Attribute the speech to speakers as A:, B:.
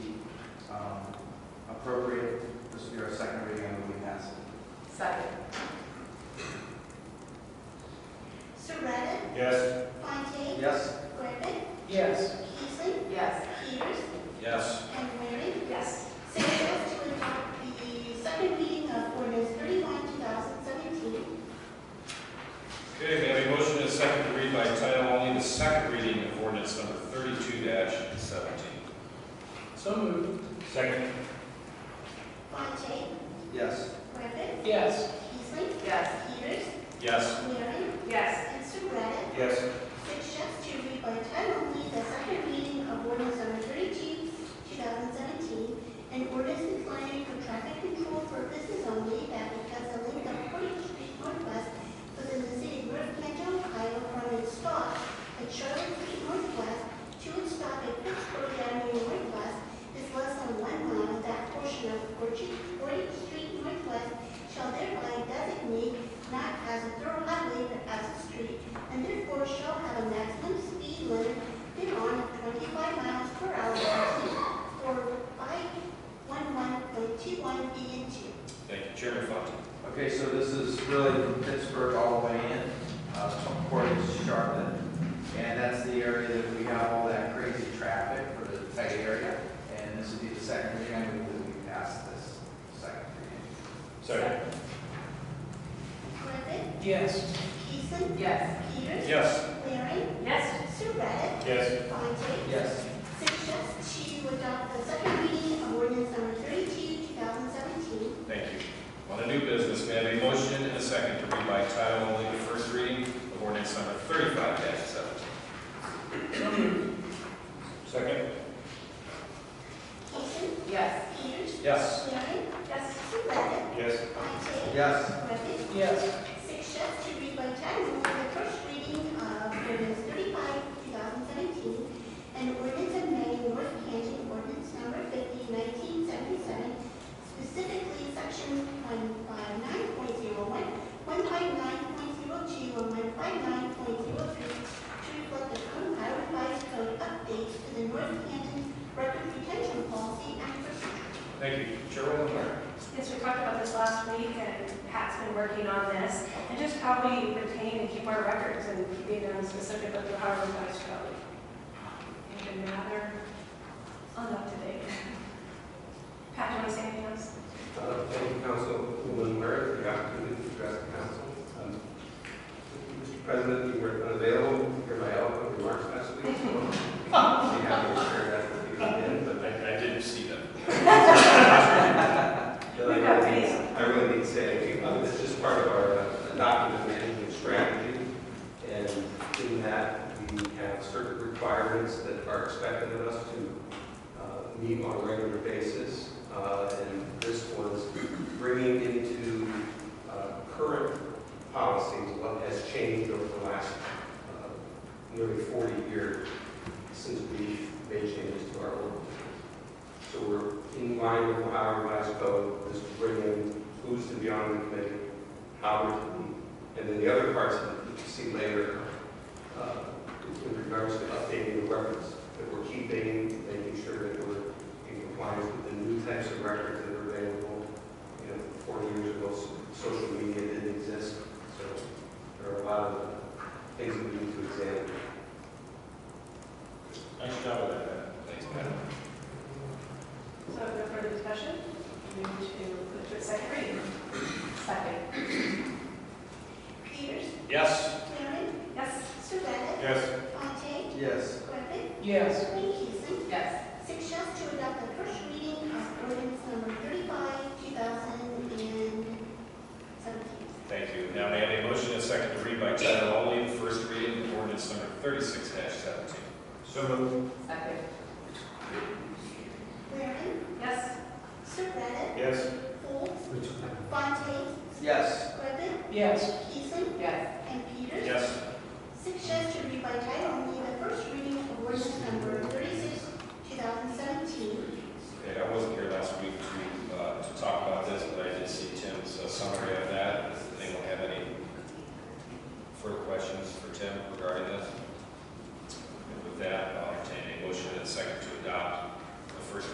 A: um, appropriate. This will be our second reading and will be passed.
B: Second.
C: Surratt,
D: Yes.
C: Fontaine,
A: Yes?
C: Griffin,
B: Yes.
C: Peasley,
B: Yes.
C: Peters,
D: Yes.
C: and Waring.
B: Yes.
C: Six votes to adopt the second reading of ordinance thirty-one, two thousand seventeen.
D: Okay, may I have a motion to second to read by title only the second reading of ordinance number thirty-two seventeen?
B: So moved.
D: Second.
C: Fontaine,
A: Yes.
C: Griffin,
B: Yes.
C: Peasley,
B: Yes.
C: Peters,
D: Yes.
C: Waring,
B: Yes.
C: and Surratt.
D: Yes.
C: Six yes to read by title only the second reading of ordinance number thirty-two, two thousand seventeen, an ordinance declining for traffic control purposes only that because the length of Portage Street Northwest within the city of North Canton, Ohio, from its stop at Charlotte Street Northwest to its stop at Pittsburgh Avenue Northwest is less than one mile, that portion of Portage, Portage Street Northwest shall thereby designate not as a thorough highway but as a street and therefore shall have a maximum speed limit thereon of 25 miles per hour for 511.21 B and 2.
D: Thank you, Chairman Fontaine.
A: Okay, so this is really from Pittsburgh all the way in, uh, from Portage to Charlotte. And that's the area that we have all that crazy traffic for the tight area. And this would be the second reading, I believe that we passed this second reading.
D: Second.
C: Griffin,
B: Yes.
C: Peasley,
B: Yes.
C: Peters,
D: Yes.
C: Waring,
B: Yes.
C: Surratt,
D: Yes.
C: Fontaine.
A: Yes.
C: Six yes to adopt the second reading of ordinance number 32, 2017.
D: Thank you. On a new business, may I have a motion and a second to read by title only the first reading of ordinance number thirty-five seventeen? Second.
C: Peasley,
B: Yes.
C: Peters,
D: Yes.
C: Waring, Surratt,
D: Yes.
C: Fontaine.
A: Yes.
C: Griffin,
B: Yes.
C: Six yes to read by title only the first reading of ordinance thirty-five, two thousand seventeen, and ordinance amending North Canton ordinance number 50, 1977, specifically sections one five nine point zero one, one five nine point zero two, and one five nine point zero three, to reflect the current Ohio revised code updates to the North Canton record retention policy and procedure.
D: Thank you, Chairwoman Meyer.
E: Yes, we talked about this last week, and Pat's been working on this, and just how we retain and keep our records and keeping them specific with the Harvard Vice Code. And then rather, on up to date. Pat, do you want to say anything else?
F: Uh, Thank you, Councilwoman Ware, for the opportunity to address the council. Um, Mr. President, you were unavailable for my eloquent remarks last week, so I'll be happy to share that with you again, but
D: I, I didn't see that.
F: I
E: We've got
F: really-
E: these.
F: I really need to say, anything. Uh, this is part of our uh, document management strategy, and in that, we have certain requirements that are expected of us to uh, meet on a regular basis, Uh, and this was bringing into uh, current policies what has changed over the last uh, nearly 40 years since we made changes to our ordinance. So we're in line with our last code, this is bringing who's to be on the committee, how we're to be, and then the other parts that you can see later, uh, in regards to updating the records that we're keeping, making sure that we're in compliance with the new types of records that are available. You know, forty years ago, s- social media didn't exist, so there are a lot of things that we need to examine.
D: Nice job with that. Thanks, Pat.
E: So no further discussion? We need to move to a second reading.
B: Second.
C: Peters,
D: Yes.
C: Waring,
E: Yes?
C: Surratt,
D: Yes.
C: Fontaine,
A: Yes.
C: Griffin,
B: Yes.
C: Peasley,
B: Yes.
C: Six yes to adopt the first reading of ordinance number thirty-five, two thousand and seventeen.
D: Thank you. Now may I have a motion and a second to read by title only the first reading of ordinance number thirty-six seventeen? So moved.
B: Second.
C: Waring,
E: Yes.
C: Surratt,
D: Yes.
C: Folds, Fontaine,
A: Yes.
C: Griffin,
B: Yes.
D: uh,